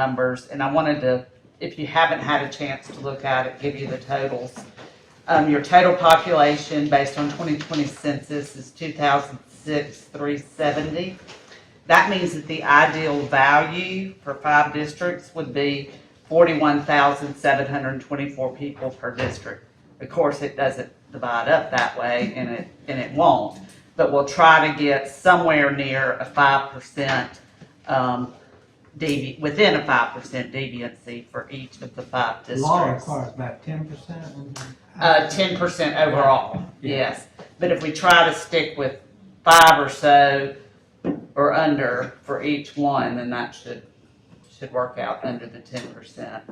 numbers, and I wanted to, if you haven't had a chance to look at it, give you the totals. Um, your total population based on twenty twenty census is two thousand six, three seventy. That means that the ideal value for five districts would be forty-one thousand, seven hundred and twenty-four people per district. Of course, it doesn't divide up that way, and it, and it won't, but we'll try to get somewhere near a five percent, um, devi, within a five percent deviancy for each of the five Law districts. requires about ten percent. Uh, ten percent overall, Yeah. yes. But if we try to stick with five or so or under for each one, then that should, should work out under the ten percent.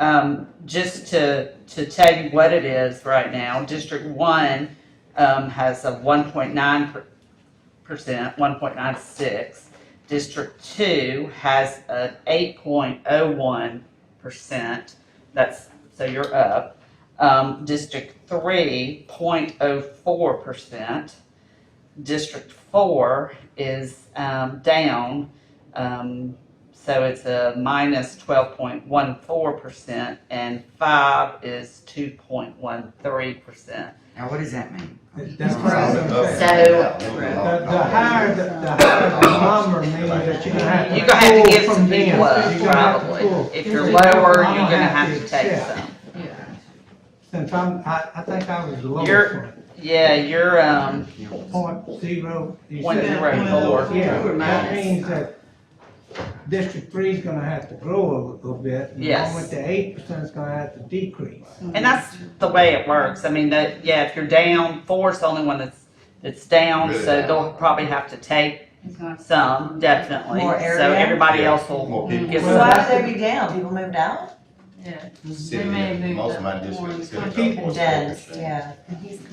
Um, just to, to tell you what it is right now, District One, um, has a one point nine percent, one point nine six. District Two has an eight point oh one percent, that's, so you're up. Um, District three, point oh four percent. District four is, um, down, um, so it's a minus twelve point one four percent, and five is two point one three percent. Now, what does that mean? That's what I was gonna say. The, the higher, the, the higher the number means that you're gonna have to. You're gonna have to pull give from some people them. up, You're gonna have to probably. pull. If you're You're gonna lower, you're gonna have have to to take accept. some. Since I'm, I, I think I was the lowest You're- one. Yeah, you're, um, Point zero. you Point said- zero four. Yeah, that means that District Three's gonna have to grow a little bit. and Yes. along with the eight percent's gonna have to decrease. And that's the way it works. I mean, that, yeah, if you're down, four's the only one that's, that's down, Really so down. they'll probably have to take some, definitely. More So area? everybody Yeah. else will More people. get Well, some. Why would they be down? People moved out? Yeah. City, most of my districts. People- Dense, yeah.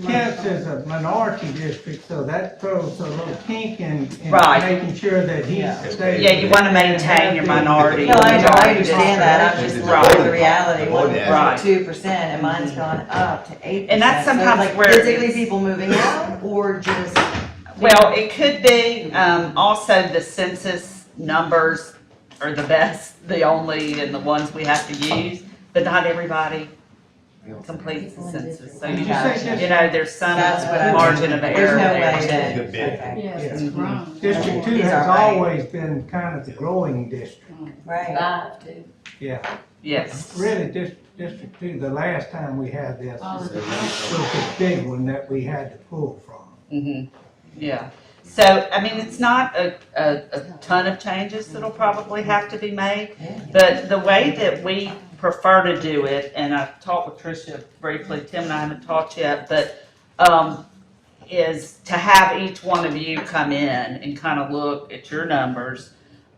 Kent is a minority district, so that throws a little kink in, in Right. making sure that he Yeah. stays. Yeah, you wanna maintain your minority. No, I, know, I understand that, I'm just looking at the Right. reality, one, Right. Mm-hmm. two percent, and mine's gone up to eight percent. And that's sometimes where it's- Physically people moving out, or just? Well, it could be, um, also the census numbers are the best, the only, and the ones we have to use, but not everybody completes the census. So Did you, you you say district, know, there's some That's what I- margin of There's error no way there. that, Good bit. okay, Yes, Yeah. it's grown. District Two These has are right. always been kind of the growing district, right. Five, two. yeah. Yes. Really, Dis- District Two, the last time we had this All was of the- a big one that we had to pull from. hmm yeah. So, I mean, it's not a, a, a ton of changes that'll probably have to be made, but the way that we prefer to do it, and I've talked with Tricia briefly, Tim and I haven't talked yet, but, um, is to have each one of you come in and kind of look at your numbers,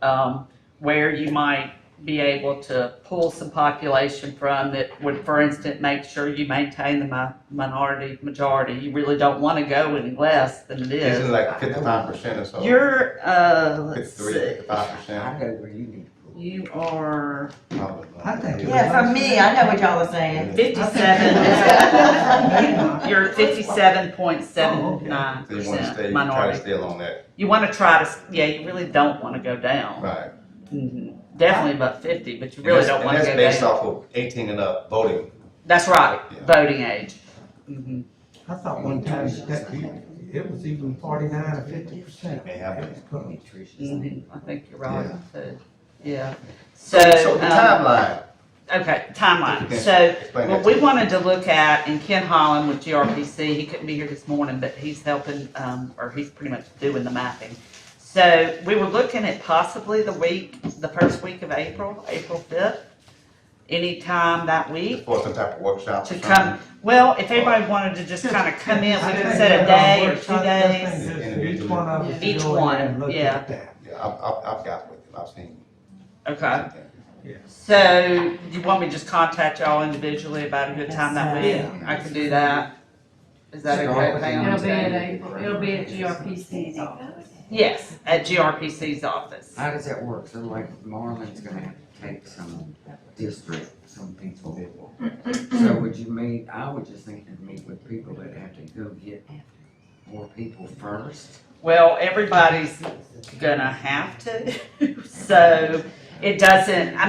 um, where you might be able to pull some population from that would, for instance, make sure you maintain the mi- minority, majority. You really don't want to go any less than it This is is. like fifty-five percent or so. You're, uh, let's Fifty-three, see, fifty-five percent. I know where you need to you are I think it- Yeah, from me, I know what y'all was saying. fifty-seven, you're fifty-seven point seven nine Oh, So you wanna stay, percent try to minority. stay along that, You want to try to, yeah, you really don't want to go down. right. Mhm. Definitely above fifty, but you And really that's- don't and want to go That's based down. off of eighteen and up voting. That's right, Yeah. voting age. Mhm. I thought one time that you- it was even forty-nine or fifty percent. May happen. Mhm, I think you're right, Yeah. so, yeah. So So, the um, timeline, okay, timeline, Okay. so explain what that. we wanted to look at, and Ken Holland with GRPC, he couldn't be here this morning, but he's helping, um, or he's pretty much doing the mapping. So we were looking at possibly the week, the first week of April, April fifth, anytime that week For some type of workshop to or something. come. Well, if everybody wanted to just kind of come in, we could set a day or two days. Each one of us Each go in and one, look yeah. at that. Yeah, I've, I've, I've got with it, I've seen. Okay, something. so you want me to just contact y'all individually about a good time that week? Yeah. I can do that. Is that Start okay, with Pam? the- It'll be at April, it'll be at GRPC's office. Yes, at GRPC's office. How does that work? So like Marlin's gonna have to take some district, some people. So would you meet, I would just think to meet with people that have to go get more people first. Well, everybody's gonna have to, so it doesn't, I